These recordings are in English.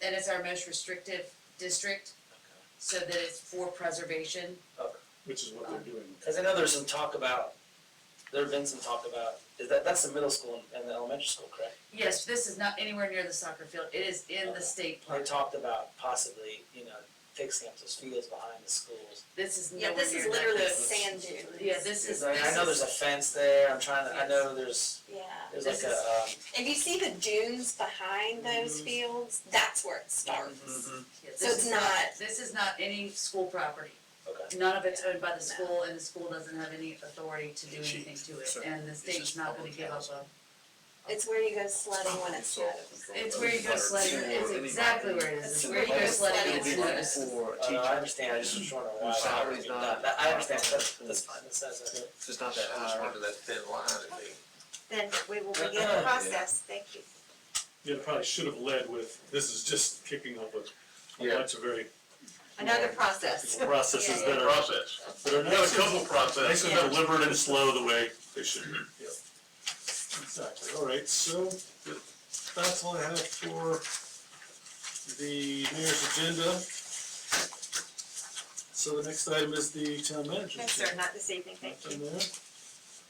That is our most restrictive district, so that it's for preservation. which is what they're doing. Cause I know there's some talk about, there have been some talk about, is that, that's the middle school and- and the elementary school, correct? Yes, this is not anywhere near the soccer field, it is in the Okay. state They park, talked about possibly, you know, fixing up those fields behind the schools. this is Yeah, nowhere near this is that. literally a This is- sand dune. Yeah, this is, Cause I, I know this there's a is, fence there, I'm trying to, I Yes. know there's, Yeah. there's like This a, um. If you see the dunes behind Mm-hmm. those Mhm. fields, that's where it starts. mhm, yeah, so this it's is not- This is not any school property. Okay. None of it's owned by No. the school, and the school doesn't have any authority to do Chief, anything to it, sir, and the is state's this not gonna public give up housing? a. It's where you go sledding when it It's all snows. controlled It's by where the you go water sledding, tower. it's exactly where it is, it's It's where you go where sledding, it's it's It'll be like noticed. for Uh, no, I teachers, understand, I just was wondering why. Whose salary's not- That- that- I understand, that's, that's fine, that's, that's, that's. it's just not that high. that thin line, I think. then we will begin the process, thank you. Yeah, they probably should have led with, this is just kicking up a, a Yeah. bunch of very Another process. processes Yeah, that are, Process. that are There's a nice. couple processes. Nice and deliberate and slow the way they should be. Exactly, all right, so that's all I have for the mayor's agenda. So the next item is the town manager. No, sir, not this evening, thank you. Nothing there.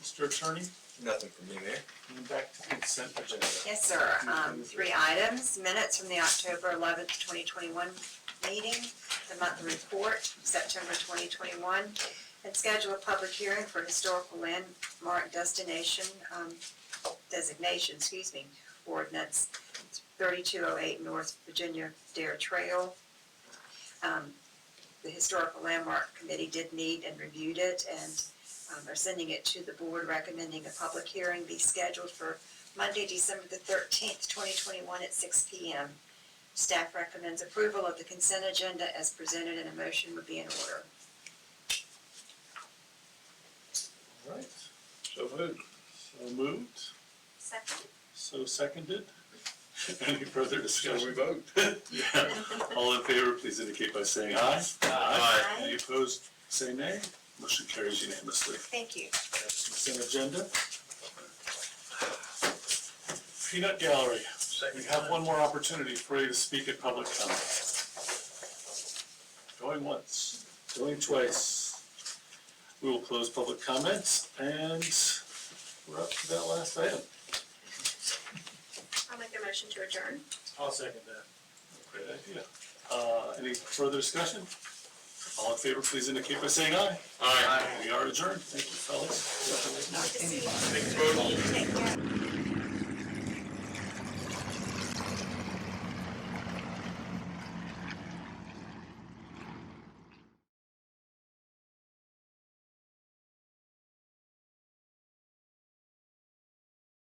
Mr. Attorney, Nothing for me there. and back to consent agenda. Yes, sir. Um, three items, minutes from the October eleventh, twenty twenty-one meeting, the monthly report, September twenty twenty-one, and schedule a public hearing for historical landmark destination, um, designation, excuse me, ordinance, thirty-two oh eight North Virginia Dare Trail. Um, the Historical Landmark Committee did meet and reviewed it, and, um, are sending it to the board recommending a public hearing be scheduled for Monday, December the thirteenth, twenty twenty-one at six P M. Staff recommends approval of the consent agenda as presented and a motion would be in order. All right, So moved. so moved, Second. so seconded. Any further Shall we discussion? vote? Yeah. All in favor, please indicate by saying aye. Aye. Any opposed, say nay. Motion carries unanimously. Thank you. Consent agenda. Peanut Gallery, we have one more opportunity for you to speak at public comment. Going once, going twice. We will close public comments and we're up to that last item. I'll make a motion to adjourn. I'll second that. Great idea. Uh, any further discussion? All in favor, please indicate by saying aye. Aye. We are adjourned. Thank you, fellas. Big vote. Take care.